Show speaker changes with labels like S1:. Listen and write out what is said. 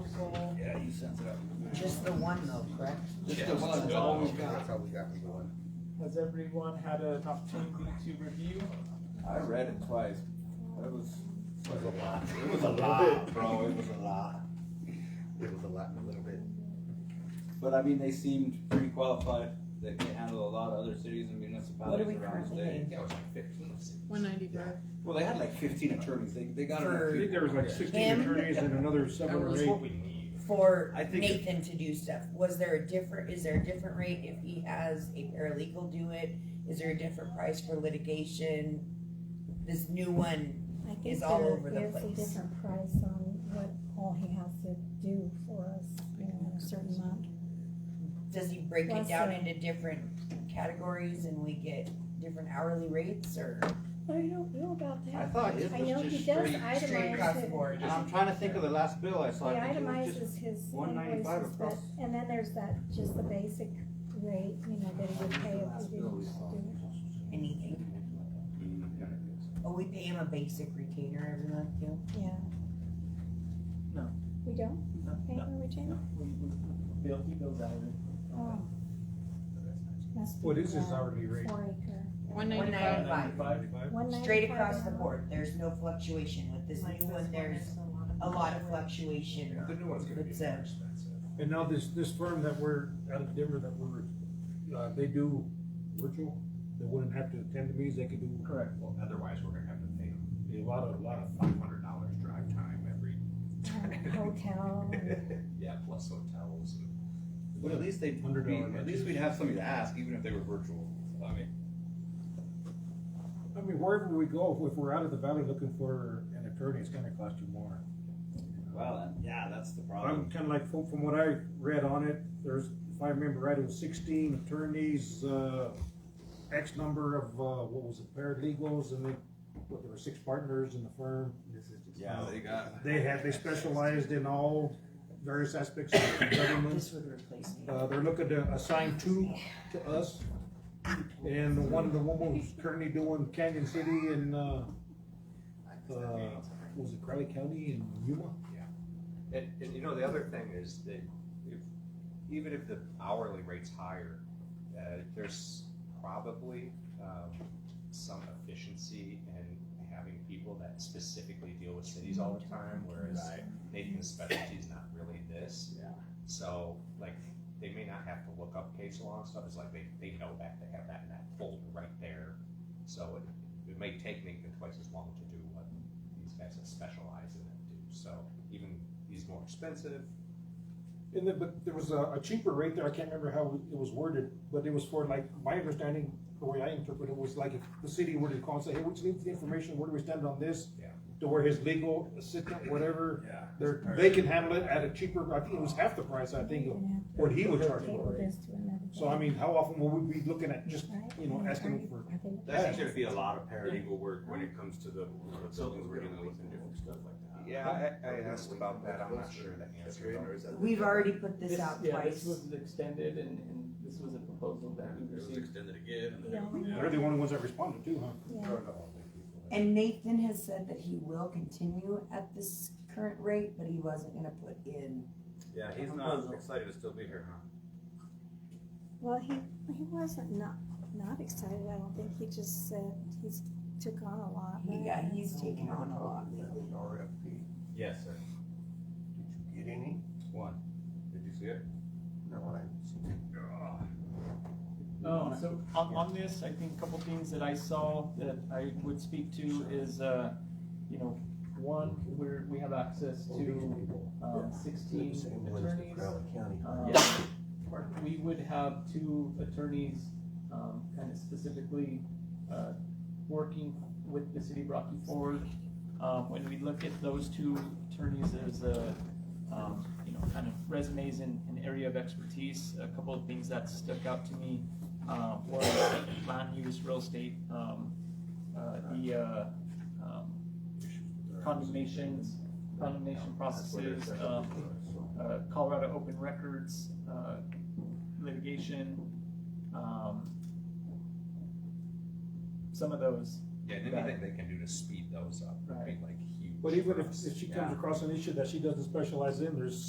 S1: proposal,
S2: Yeah, he sends it out.
S1: just the one though, correct?
S2: Just the one, that's all we've got.
S3: That's all we got for one.
S4: Has everyone had an opportunity to review?
S2: I read it twice. That was. Was a lot. It was a lot, bro, it was a lot.
S3: It was a lot in a little bit.
S2: But I mean, they seemed pretty qualified. They can handle a lot of other cities and municipalities
S1: What do we
S2: around
S1: currently
S2: today.
S1: have?
S5: Yeah, it was like fifteen.
S6: One ninety-five.
S2: Well, they had like fifteen attorneys. They, they got.
S1: For-
S2: enough
S7: I think there was like
S2: people.
S7: sixteen
S1: Him?
S7: attorneys and another seven
S5: That
S7: or
S5: was
S7: eight.
S5: what we need.
S1: For
S2: I think-
S1: Nathan to do stuff, was there a different, is there a different rate if he has a paralegal do it? Is there a different price for litigation? This new one,
S8: I think
S1: is all
S8: there
S1: over the
S8: is a
S1: place.
S8: different price on what all he has to do for us, you know, in a certain month.
S1: does he break it
S8: Plus,
S1: down
S8: uh,
S1: into different categories and we get different hourly rates or?
S8: But I don't know about that.
S2: I thought it
S8: I
S2: was
S8: know
S2: just
S8: he does
S2: straight-
S8: itemize
S1: Straight across the
S8: it.
S1: board.
S5: Just-
S2: I'm trying to think of the last bill I
S8: He
S2: saw. I think it was just-
S8: itemizes his
S2: $1.95
S8: invoices, but,
S2: across.
S8: and then there's that, just the basic rate, you know, that he would pay if we didn't do it.
S1: Anything. Oh, we pay him a basic retainer every month too?
S8: Yeah.
S4: No.
S8: We don't pay for retainer?
S4: We- we- Bill, he goes out and.
S8: Oh. Must be
S7: What is his
S8: about
S7: hourly rate?
S8: Four acre.
S6: One
S1: One
S6: ninety-five.
S1: ninety-five,
S8: One
S1: straight
S8: ninety-five
S1: across the
S8: an hour.
S1: board, there's no fluctuation with this new one, there's a lot of fluctuation.
S5: The new one's gonna be
S1: It's
S5: more
S1: a-
S5: expensive.
S7: And now this, this firm that we're, out of Denver that we're, uh, they do virtual, they wouldn't have to attend the meetings, they could do.
S4: Correct.
S5: Well, otherwise, we're gonna have to pay them a lot of, lot of five hundred dollars drive time every.
S8: Um, Hotel.
S5: Yeah, plus hotels and.
S2: But at least they'd
S7: Hundred
S2: be,
S7: dollar
S2: at least
S7: matches.
S2: we'd have somebody to ask, even if they were virtual. I mean,
S7: I mean, wherever we go, if we're out of the valley looking for an attorney, it's gonna cost you more.
S2: well, then, yeah, that's the
S7: I'm
S2: problem.
S7: kinda like, from, from what I read on it, there's, if I remember right, it was sixteen attorneys, uh, X number of, uh, what was it, paralegals, and they, what, there were six partners in the firm.
S3: This is just-
S2: Yeah, they got.
S7: They had, they specialized in all various aspects of government.
S1: This would replace me.
S7: Uh, they're looking to assign two to us. And the one, the woman who's currently doing Canyon City and, uh, uh,
S5: Uh,
S7: what was it Crowley County and Yuma?
S5: And, and you know, the other thing is that if, even if the hourly rate's higher, uh, there's probably, um, some efficiency in having people that specifically deal with cities all the time, whereas Nathan's specialty is not really this.
S2: Yeah.
S5: So, like, they may not have to look up case law and stuff, it's like they, they know that, they have that in that folder right there. So it, it may take Nathan twice as long to do what these guys that specialize in it do, so even these more expensive.
S7: And then, but there was a, a cheaper rate there, I can't remember how it was worded, but it was for like, my understanding, the way I interpret it was like if the city were to call and say, hey, we just need the information, where do we stand on this?
S5: Yeah.
S7: To where his legal assistant, whatever,
S2: Yeah.
S7: they're, they can handle it at a cheaper, I think it was half the price, I think, of
S8: We're
S7: what he would
S8: gonna
S7: charge
S8: have to
S7: for
S8: table
S7: it.
S8: this to another
S7: So I
S8: day,
S7: mean, how often will we be looking at just,
S8: right?
S7: you know, asking for,
S8: Are they-
S7: That
S9: That's gonna be a lot of paralegal work when it comes to the, you know, the buildings we're dealing with and different stuff like that.
S5: Yeah, I, I asked about that, I'm not sure the answer.
S3: Or is that-
S1: We've already put this out
S4: Yeah, this
S1: twice.
S4: was extended and, and this was a proposal that we received.
S9: extended again.
S8: Yeah.
S7: they're the only ones that responded too, huh?
S8: Yeah.
S1: And Nathan has said that he will continue at this current rate, but he wasn't gonna put in,
S9: Yeah, he's not excited to still be here, huh?
S8: Well, he, he wasn't not, not excited, I don't think, he just said he's took on a lot.
S1: he
S8: right?
S1: got, he's taken on a lot lately.
S3: RFP.
S9: Yes, sir.
S3: Did you get any?
S2: One. Did you see it?
S3: No, I.
S4: Oh, so on, on this, I think a couple things that I saw that I would speak to is, uh, you know, one, we're, we have access to, um, sixteen attorneys.
S3: County.
S4: Um, We would have two attorneys, um, kind of specifically, uh, working with the city of Rocky Ford. Um, when we look at those two attorneys, there's a, um, you know, kind of resumes and, and area of expertise. A couple of things that stuck out to me, um, was land use, real estate, um, uh, the, uh, um, condemnations, condemnation processes, um, uh, Colorado Open Records uh, litigation. Um, some of those,
S5: Yeah, and anything they can do to speed those up would be like huge.
S7: But even if, if she comes
S5: Yeah.
S7: across an issue that she doesn't specialize in, there's